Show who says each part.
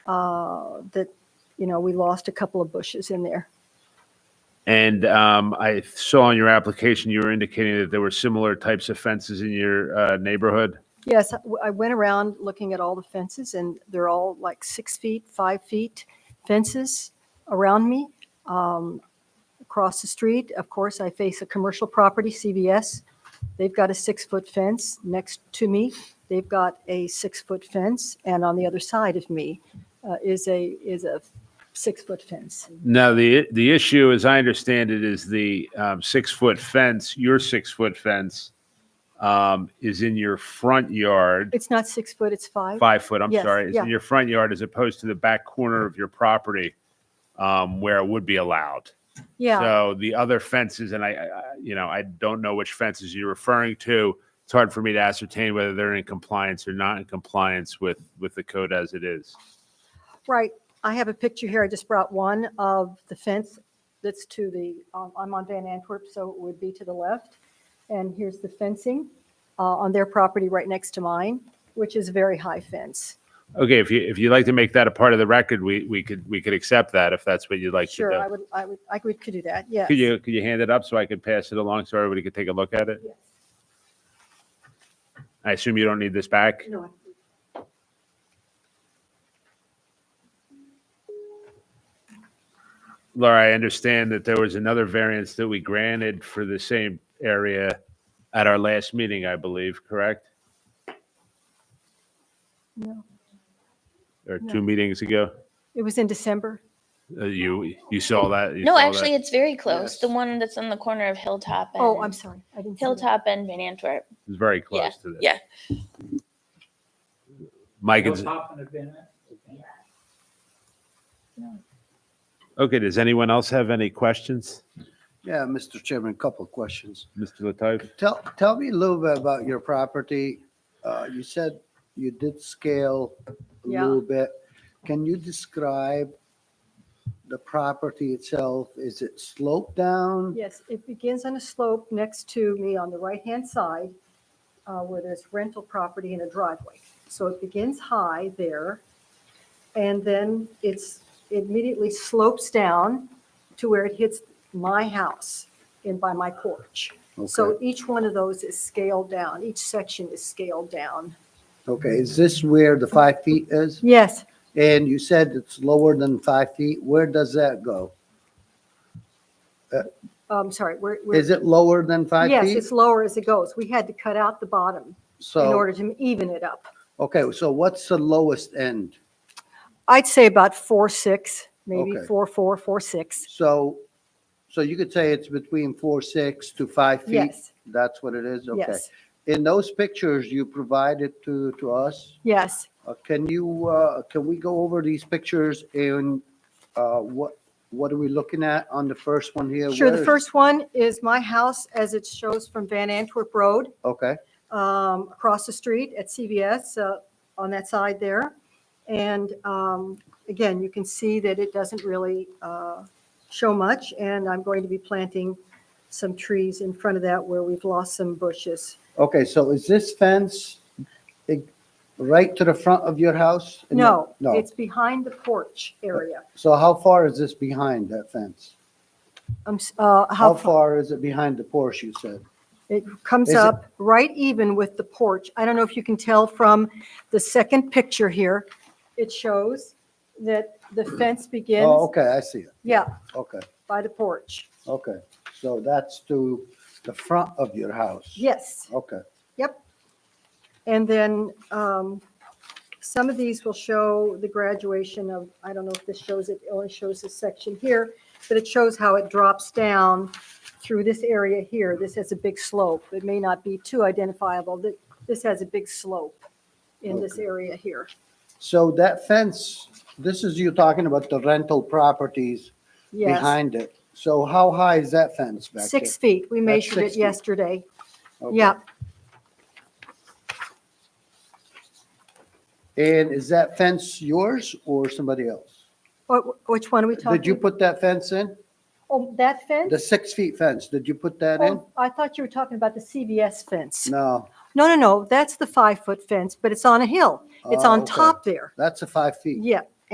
Speaker 1: uh, that, you know, we lost a couple of bushes in there.
Speaker 2: And um, I saw in your application, you were indicating that there were similar types of fences in your uh, neighborhood.
Speaker 1: Yes, I- I went around looking at all the fences, and they're all like six feet, five feet fences around me. Um, Across the street, of course, I face a commercial property, CVS. They've got a six-foot fence next to me. They've got a six-foot fence, and on the other side of me uh, is a, is a six-foot fence.
Speaker 2: Now, the the issue, as I understand it, is the um, six foot fence. Your six foot fence um, is in your front yard,
Speaker 1: It's not six foot, it's five.
Speaker 2: five foot. I'm
Speaker 1: Yes,
Speaker 2: sorry, it's
Speaker 1: yeah.
Speaker 2: in your front yard as opposed to the back corner of your property um, where it would be allowed.
Speaker 1: Yeah,
Speaker 2: So the other fences, and I, I, I- you know, I don't know which fences you're referring to. It's hard for me to ascertain whether they're in compliance or not in compliance with, with the code as it is.
Speaker 1: right. I have a picture here. I just brought one of the fence that's to the, um, I'm on Van Antwerp, so it would be to the left. And here's the fencing uh, on their property right next to mine, which is a very high fence.
Speaker 2: Okay, if you, if you'd like to make that a part of the record, we, we could, we could accept that if that's what you'd like
Speaker 1: Sure, I
Speaker 2: to
Speaker 1: would, I would, I could could do that,
Speaker 2: do.
Speaker 1: yes.
Speaker 2: Could you, could you hand it up so I could pass it along so everybody could take a look at it?
Speaker 1: Yes.
Speaker 2: I assume you don't need this back?
Speaker 1: No, I-
Speaker 2: Laura, I understand that there was another variance that we granted for the same area at our last meeting, I believe, correct?
Speaker 1: No,
Speaker 2: Or two meetings ago?
Speaker 1: it was in December.
Speaker 2: Uh, You, you saw that? you
Speaker 3: No,
Speaker 2: saw that?
Speaker 3: actually, it's very close.
Speaker 2: Yes.
Speaker 3: The one that's on the corner of Hilltop. And,
Speaker 1: Oh, I'm sorry. I didn't. see that.
Speaker 3: Hilltop and Van Antwerp.
Speaker 2: It's very close
Speaker 3: Yeah,
Speaker 2: to this.
Speaker 3: yeah.
Speaker 2: Mike,
Speaker 4: Bill
Speaker 2: is-
Speaker 4: Hoffman had been at-
Speaker 2: okay, does anyone else have any questions?
Speaker 5: Yeah, Mr. Chairman, a couple of questions.
Speaker 2: Mr. Latouf?
Speaker 5: Tell, tell me a little bit about your property. Uh, You said you did scale a
Speaker 1: Yeah.
Speaker 5: little bit. Can you describe the property itself? Is it sloped down?
Speaker 1: Yes, it begins on a slope next to me on the right-hand side uh, where there's rental property and a driveway. So it begins high there. And then it's, it immediately slopes down to where it hits my house and by my porch. So
Speaker 5: Okay,
Speaker 1: each one of those is scaled down. Each section is scaled down.
Speaker 5: okay, is this where the five feet is?
Speaker 1: Yes,
Speaker 5: And you said it's lower than five feet. Where does that go?
Speaker 1: I'm Um, sorry, we're. we're-
Speaker 5: Is it lower than five
Speaker 1: Yes,
Speaker 5: feet?
Speaker 1: it's lower as it goes. We had to cut out the bottom in
Speaker 5: So,
Speaker 1: order to even it up.
Speaker 5: okay, so what's the lowest end?
Speaker 1: I'd say about four, six, maybe
Speaker 5: Okay.
Speaker 1: four, four, four, six.
Speaker 5: So, so you could say it's between four, six to five feet?
Speaker 1: Yes,
Speaker 5: That's what it is? Okay.
Speaker 1: yes,
Speaker 5: In those pictures you provided to, to us,
Speaker 1: yes.
Speaker 5: uh, can you, uh, can we go over these pictures and uh, what, what are we looking at on the first one here?
Speaker 1: Sure,
Speaker 5: Where
Speaker 1: the
Speaker 5: is-
Speaker 1: first one is my house as it shows from Van Antwerp Road,
Speaker 5: Okay,
Speaker 1: um, across the street at CVS, uh, on that side there. And, um, again, you can see that it doesn't really, uh, show much. And I'm going to be planting some trees in front of that where we've lost some bushes.
Speaker 5: okay, so is this fence eh, right to the front of your house?
Speaker 1: No,
Speaker 5: No,
Speaker 1: it's behind the porch area.
Speaker 5: so how far is this behind that fence?
Speaker 1: I'm, s- uh,
Speaker 5: How
Speaker 1: how far?
Speaker 5: far is it behind the Porsche, you said?
Speaker 1: It comes
Speaker 5: Is it-
Speaker 1: up right even with the porch. I don't know if you can tell from the second picture here. It shows that the fence
Speaker 5: Oh,
Speaker 1: begins,
Speaker 5: okay, I see it.
Speaker 1: yeah,
Speaker 5: Okay,
Speaker 1: by the porch.
Speaker 5: okay, so that's to the front of your house?
Speaker 1: Yes,
Speaker 5: Okay.
Speaker 1: yep. And then um, some of these will show the graduation of, I don't know if this shows it, it only shows this section here, but it shows how it drops down through this area here. This has a big slope. It may not be too identifiable. Th- This has a big slope in this area here.
Speaker 5: So that fence, this is you talking about the rental properties
Speaker 1: Yes,
Speaker 5: behind it. So how high is that fence back there?
Speaker 1: six feet. We measured
Speaker 5: six
Speaker 1: it
Speaker 5: feet.
Speaker 1: yesterday.
Speaker 5: Okay.
Speaker 1: Yeah,
Speaker 5: And is that fence yours or somebody else?
Speaker 1: Wh- which one are we talking?
Speaker 5: Did you put that fence in?
Speaker 1: Oh, that
Speaker 5: The
Speaker 1: fence?
Speaker 5: six feet fence, did you put that in?
Speaker 1: Oh, I thought you were talking about the CVS fence.
Speaker 5: No,
Speaker 1: No, no, no, that's the five-foot fence, but it's on a hill. It's
Speaker 5: Oh,
Speaker 1: on
Speaker 5: okay.
Speaker 1: top there.
Speaker 5: that's a five feet.
Speaker 1: Yeah,